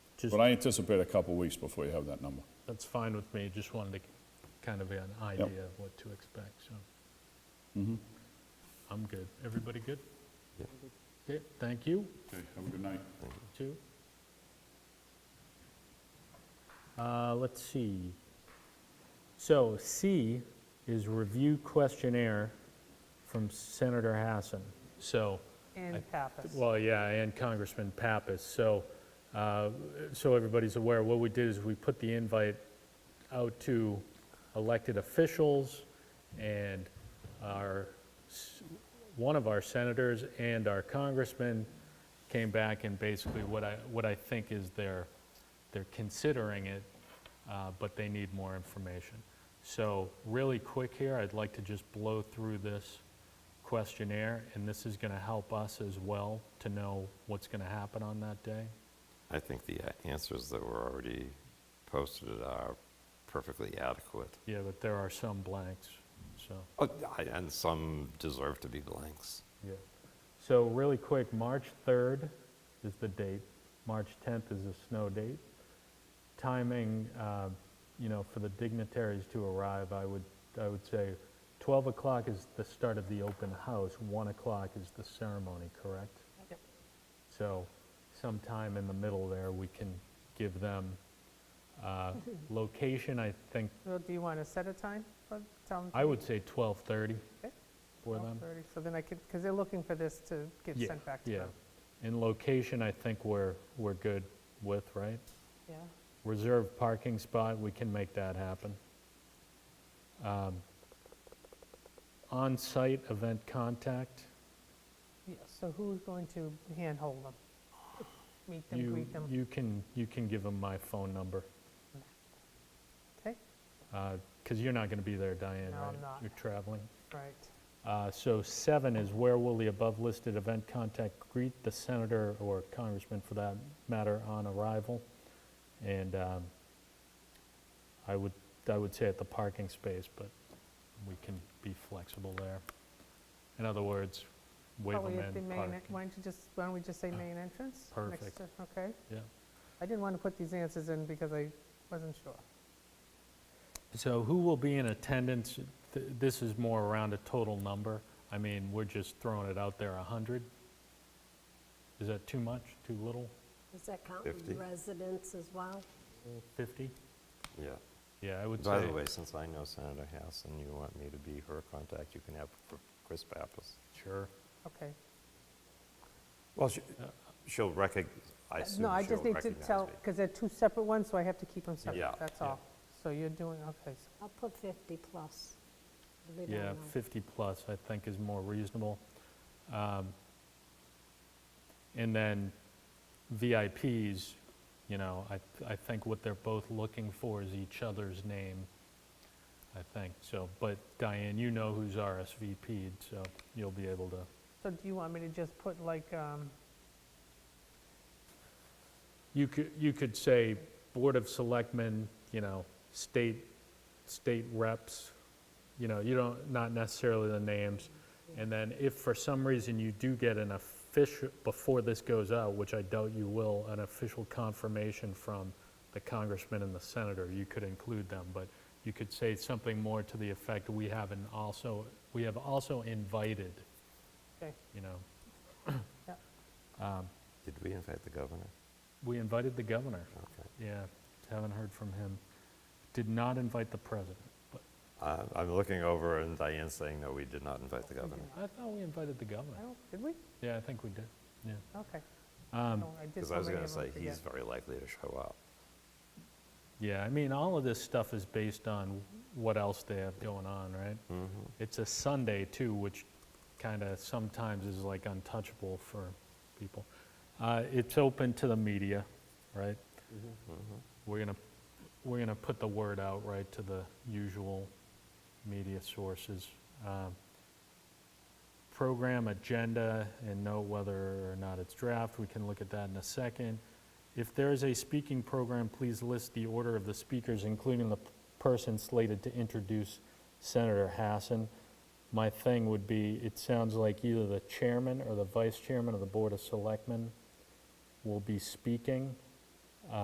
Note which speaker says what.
Speaker 1: Just,
Speaker 2: But I anticipate a couple weeks before you have that number.
Speaker 3: That's fine with me, just wanted to kind of an idea of what to expect, so. I'm good. Everybody good? Okay, thank you,
Speaker 2: Okay, have a good night.
Speaker 3: too.
Speaker 1: uh, let's see. So C is review questionnaire from Senator Hassan.
Speaker 3: So,
Speaker 4: And Pappas.
Speaker 3: well, yeah, and Congressman Pappas, so, uh, so everybody's aware, what we did is we put the invite out to elected officials and our, s- one of our senators and our congressman came back and basically what I, what I think is they're, they're considering it, uh, but they need more information. So really quick here, I'd like to just blow through this questionnaire, and this is going to help us as well to know what's going to happen on that day.
Speaker 5: I think the uh, answers that were already posted are perfectly adequate.
Speaker 3: Yeah, but there are some blanks, so,
Speaker 5: Oh, I- And some deserve to be blanks.
Speaker 3: yeah.
Speaker 1: So really quick, March 3rd is the date. March 10th is a snow date. Timing, uh, you know, for the dignitaries to arrive, I would, I would say 12 o'clock is the start of the open house, 1 o'clock is the ceremony, correct?
Speaker 4: Yep.
Speaker 1: So sometime in the middle there, we can give them uh, location, I think,
Speaker 4: Well, do you want to set a time for town?
Speaker 3: I would say 12:30
Speaker 4: Okay.
Speaker 3: for them.
Speaker 4: 12:30, So then I could, because they're looking for this to get
Speaker 3: Yeah,
Speaker 4: sent back to
Speaker 3: yeah.
Speaker 4: them.
Speaker 3: And location, I think we're, we're good with, right?
Speaker 4: Yeah.
Speaker 3: Reserve parking spot, we can make that happen. Um, On-site event contact,
Speaker 4: Yeah, so who's going to handhold them? Meet them,
Speaker 3: you,
Speaker 4: greet them?
Speaker 3: you can, you can give them my phone number.
Speaker 4: Okay,
Speaker 3: Because you're not going to be there, Diane,
Speaker 4: No,
Speaker 3: right?
Speaker 4: I'm not.
Speaker 3: You're traveling.
Speaker 4: right.
Speaker 3: Uh, So seven is where will the above-listed event contact greet the senator or congressman for that matter on arrival? And um, I would, I would say at the parking space, but we can be flexible there. In other words, wave
Speaker 4: Probably
Speaker 3: them
Speaker 4: at the
Speaker 3: in,
Speaker 4: main.
Speaker 3: park. Uh,
Speaker 4: en- Why don't you just, why don't we just say main entrance? next
Speaker 3: Perfect.
Speaker 4: to- Okay.
Speaker 3: Yeah.
Speaker 4: I didn't want to put these answers in because I wasn't sure.
Speaker 3: So who will be in attendance? Th- This is more around a total number. I mean, we're just throwing it out there, 100? Is that too much, too little?
Speaker 6: Does that count
Speaker 5: 50.
Speaker 6: residents as well?
Speaker 3: 50?
Speaker 5: Yeah.
Speaker 3: Yeah, I would say.
Speaker 5: By the way, since I know Senator House and you want me to be her contact, you can have Chr- Chris Pappas.
Speaker 3: Sure.
Speaker 4: Okay.
Speaker 5: Well, she- she'll recog, I assume
Speaker 4: Uh, No, I
Speaker 5: she'll
Speaker 4: just need
Speaker 5: recognize
Speaker 4: to
Speaker 5: me.
Speaker 4: tell, because they're two separate ones, so I have to keep them
Speaker 5: Yeah,
Speaker 4: separate, that's
Speaker 5: yeah.
Speaker 4: all. So you're doing, okay, so
Speaker 6: I'll put 50 plus. We don't
Speaker 3: Yeah,
Speaker 6: know.
Speaker 3: 50 plus, I think, is more reasonable. Um, And then VIPs, you know, I, I think what they're both looking for is each other's name, I think, so. But Diane, you know who's RSVP'd, so you'll be able to,
Speaker 4: So do you want me to just put like, um,
Speaker 3: you could, you could say Board of Selectmen, you know, state, state reps, you know, you don't, not necessarily the names. And then if for some reason you do get an official, before this goes out, which I doubt you will, an official confirmation from the congressman and the senator, you could include them, but you could say something more to the effect, we have an also, we have also invited,
Speaker 4: okay,
Speaker 3: you know.
Speaker 4: Yep.
Speaker 5: Did we invite the governor?
Speaker 3: We invited the governor.
Speaker 5: Okay.
Speaker 3: Yeah, haven't heard from him. Did not invite the president, but
Speaker 5: Uh, I'm looking over and Diane's saying, no, we did not invite the governor.
Speaker 3: I thought we invited the governor.
Speaker 4: I don't- did we?
Speaker 3: Yeah, I think we did, yeah.
Speaker 4: Okay. No, I did
Speaker 5: Because
Speaker 4: so
Speaker 5: I was
Speaker 4: many
Speaker 5: going to
Speaker 4: of 'em,
Speaker 5: say,
Speaker 4: I
Speaker 5: he's
Speaker 4: forget.
Speaker 5: very likely to show up.
Speaker 3: Yeah, I mean, all of this stuff is based on what else they have going on, right? It's a Sunday too, which kind of sometimes is like untouchable for people. Uh, It's open to the media, right? We're gonna, we're gonna put the word out, right, to the usual media sources. Um, Program agenda and note whether or not it's draft, we can look at that in a second. If there is a speaking program, please list the order of the speakers, including the person slated to introduce Senator Hassan. My thing would be, it sounds like either the chairman or the vice chairman of the Board of Selectmen will be speaking,